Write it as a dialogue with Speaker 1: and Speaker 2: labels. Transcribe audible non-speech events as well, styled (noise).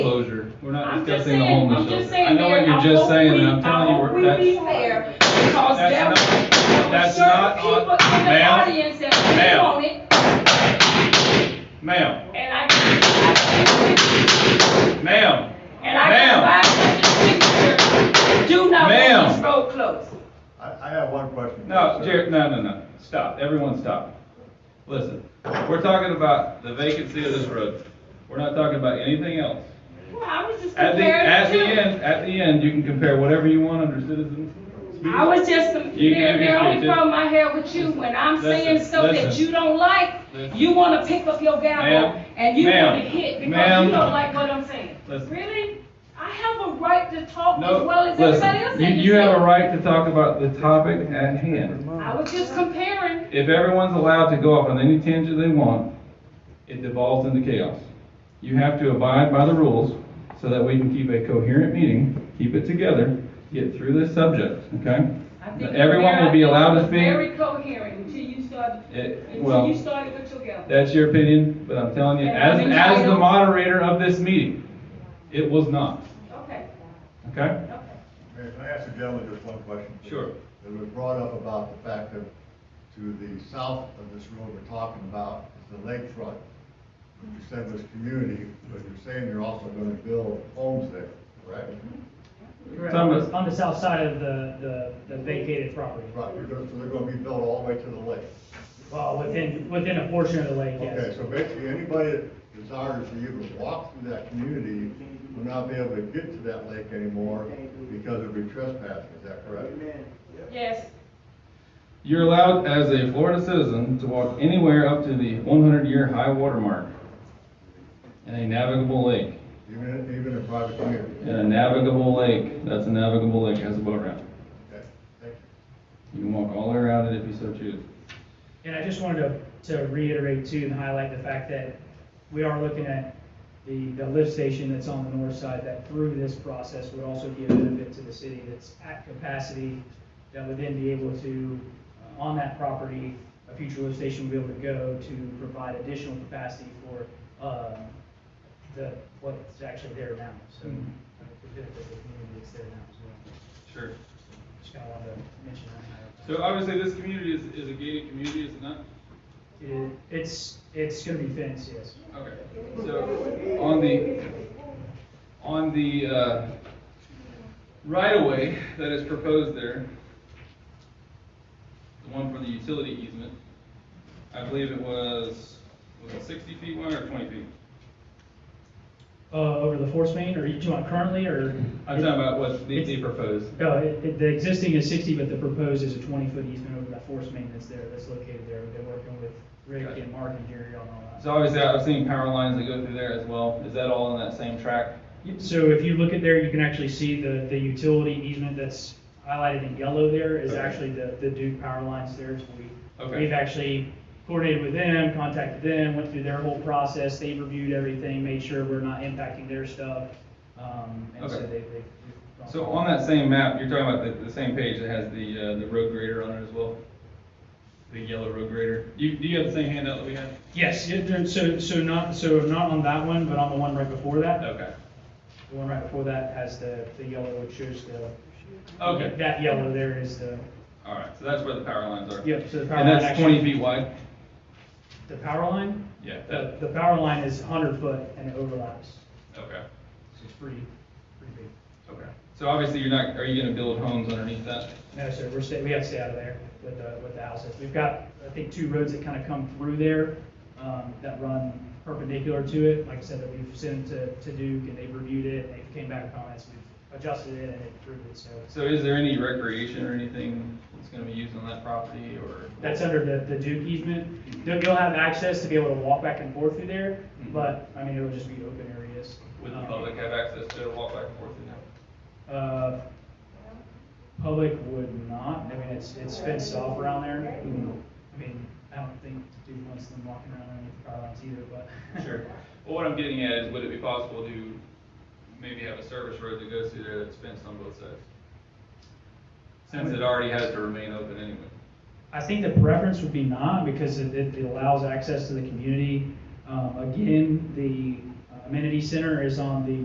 Speaker 1: here, we're not
Speaker 2: I'm just
Speaker 1: discussing the
Speaker 2: saying, I'm
Speaker 1: homeless
Speaker 2: just
Speaker 1: shelter.
Speaker 2: saying.
Speaker 1: I know what
Speaker 2: Mayor,
Speaker 1: you're
Speaker 2: I
Speaker 1: just
Speaker 2: hope
Speaker 1: saying, and
Speaker 2: we-
Speaker 1: I'm telling you,
Speaker 2: I hope
Speaker 1: we're-
Speaker 2: we be
Speaker 1: that's,
Speaker 2: fair, because there were
Speaker 1: that's not, that's
Speaker 2: certain
Speaker 1: not,
Speaker 2: people
Speaker 1: on-
Speaker 2: in the
Speaker 1: ma'am,
Speaker 2: audience that didn't
Speaker 1: ma'am.
Speaker 2: want it,
Speaker 1: ma'am,
Speaker 2: and I, I-
Speaker 1: ma'am,
Speaker 2: and I can
Speaker 1: Ma'am.
Speaker 2: buy such a picture, do not
Speaker 1: Ma'am.
Speaker 2: want this road closed.
Speaker 3: I, I have one question.
Speaker 1: no,
Speaker 3: sir.
Speaker 1: Jared, no, no, no, stop, everyone stop. Listen, we're talking about the vacancy of this road, we're not talking about anything else.
Speaker 2: Well, I was just
Speaker 1: At the, at
Speaker 2: comparing
Speaker 1: the
Speaker 2: the two.
Speaker 1: end, at the end, you can compare whatever you want under citizens. speech.
Speaker 2: I was just, com-
Speaker 1: You can
Speaker 2: the the only
Speaker 1: dispute it.
Speaker 2: problem I have with you, when I'm saying
Speaker 1: Listen,
Speaker 2: stuff that
Speaker 1: listen.
Speaker 2: you don't like,
Speaker 1: Listen.
Speaker 2: you wanna pick up your gavel
Speaker 1: Ma'am,
Speaker 2: and you
Speaker 1: ma'am,
Speaker 2: wanna hit because
Speaker 1: ma'am.
Speaker 2: you don't like what I'm saying.
Speaker 1: Listen.
Speaker 2: Really? I have a right to talk as
Speaker 1: No,
Speaker 2: well as everybody else.
Speaker 1: listen,
Speaker 2: in
Speaker 1: you,
Speaker 2: this
Speaker 1: you have a
Speaker 2: city.
Speaker 1: right to talk about the topic at hand.
Speaker 2: I was just comparing,
Speaker 1: If everyone's allowed to go off on any tangent they want, it devolves into chaos. You have to abide by the rules so that we can keep a coherent meeting, keep it together, get through this subject, okay?
Speaker 2: I think.
Speaker 1: Everyone will be allowed to speak.
Speaker 2: Very coherent until you started,
Speaker 1: It-
Speaker 2: until
Speaker 1: well,
Speaker 2: you started with your gavel.
Speaker 1: that's your opinion, but I'm telling you,
Speaker 2: And I'm
Speaker 1: as, as the
Speaker 2: entitled-
Speaker 1: moderator of this meeting, it was not,
Speaker 2: Okay,
Speaker 1: okay?
Speaker 2: okay.
Speaker 3: Mayor, can I ask the gentleman just one question? please?
Speaker 1: Sure.
Speaker 3: It was brought up about the fact that to the south of this road we're talking about is the lakefront. What you said was community, but you're saying you're also gonna build homes there, correct?
Speaker 4: Correct,
Speaker 1: Some
Speaker 4: on
Speaker 1: of-
Speaker 4: the- on the south side of the, the the vacated property.
Speaker 3: Right, you're gonna, so they're gonna be built all the way to the lake.
Speaker 4: Well, within, within a portion of the lake,
Speaker 3: Okay,
Speaker 4: yes.
Speaker 3: so basically, anybody that desires to even walk through that community will not be able to get to that lake anymore because of be trespassing, is that correct?
Speaker 2: Yes,
Speaker 1: You're allowed as a Florida citizen to walk anywhere up to the 100-year high water mark in a navigable lake.
Speaker 3: Even, even in private community?
Speaker 1: In a navigable lake, that's a navigable lake, has a boat ramp.
Speaker 3: Okay, thank you.
Speaker 1: You can walk all the way around it if you so choose.
Speaker 4: And I just wanted to, to reiterate too and highlight the fact that we are looking at the, the lift station that's on the north side that through this process would also be a benefit to the city that's at capacity, that would then be able to, uh, on that property, a future lift station would be able to go to provide additional capacity for, uh, the, what's actually there now. So, uh, the benefit of the community that's there now as well.
Speaker 1: Sure.
Speaker 4: Just kind of wanted to mention that.
Speaker 1: So uh, obviously, this community is, is a gated community, is it not?
Speaker 4: It- It's, it's gonna be fenced, yes.
Speaker 1: Okay. So on the, on the uh, right-of-way that is proposed there, the one for the utility easement, I believe it was, was it 60 feet wide or 20 feet?
Speaker 4: Uh, over the force main, or each one currently, or?
Speaker 1: I'm talking about what they they proposed.
Speaker 4: No, it, it, the existing is sixty, but the proposed is a twenty-foot easement over that force main that's there, that's located there. They're working with Rick
Speaker 1: Gotcha.
Speaker 4: and Mark and Gary on all that.
Speaker 1: So obviously, I've seen power lines that go through there as well. Is that all in that same track?
Speaker 4: So if you look at there, you can actually see the, the utility easement that's highlighted in yellow there is
Speaker 1: Okay.
Speaker 4: actually the, the Duke power lines there. So we,
Speaker 1: Okay.
Speaker 4: we've actually coordinated with them, contacted them, went through their whole process. They reviewed everything, made sure we're not impacting their stuff. Um, and so
Speaker 1: Okay.
Speaker 4: they, they.
Speaker 1: So on that same map, you're talking about the, the same page that has the, uh, the road grader on it as well? The yellow road grader. You, do you have the same handout that we had?
Speaker 4: Yes, yeah, there- so, so not, so not on that one, but on the one right before that.
Speaker 1: Okay.
Speaker 4: The one right before that has the, the yellow, which shows the.
Speaker 1: Okay.
Speaker 4: That yellow there is the,
Speaker 1: All right, so that's where the power lines are.
Speaker 4: yep, so the power line.
Speaker 1: And that's
Speaker 4: actually-
Speaker 1: twenty feet wide?
Speaker 4: The power line?
Speaker 1: Yeah,
Speaker 4: The,
Speaker 1: that,
Speaker 4: the power line is hundred foot and it overlaps,
Speaker 1: okay,
Speaker 4: so it's pretty, pretty big.
Speaker 1: okay. So obviously you're not, are you gonna build homes underneath that?
Speaker 4: No, sir, we're stay, we have to stay out of there with the, with the houses. We've got, I think, two roads that kind of come through there, um, that run perpendicular to it. Like I said, that we've sent to, to Duke and they've reviewed it, and they came back with comments, we've adjusted it and improved it, so.
Speaker 1: So is there any recreation or anything that's gonna be used on that property or?
Speaker 4: That's under the, the Duke easement. They'll, they'll have access to be able to walk back and forth through there,
Speaker 1: Mhm.
Speaker 4: but, I mean, it'll just be open areas.
Speaker 1: Would the
Speaker 4: Um,
Speaker 1: public have access to it, walk back and forth in there?
Speaker 4: Uh, Public would not, I mean, it's, it's fenced off around there. I mean, I don't think Duke wants them walking around underneath the power lines either, but. (laughs)
Speaker 1: Sure. Well, what I'm getting at is would it be possible to maybe have a service road that goes through there that's fenced on both sides? Since it already has to remain open anyway.
Speaker 4: I think the preference would be not, because it, it it allows access to the community. Um, again, the uh, amenity center is on the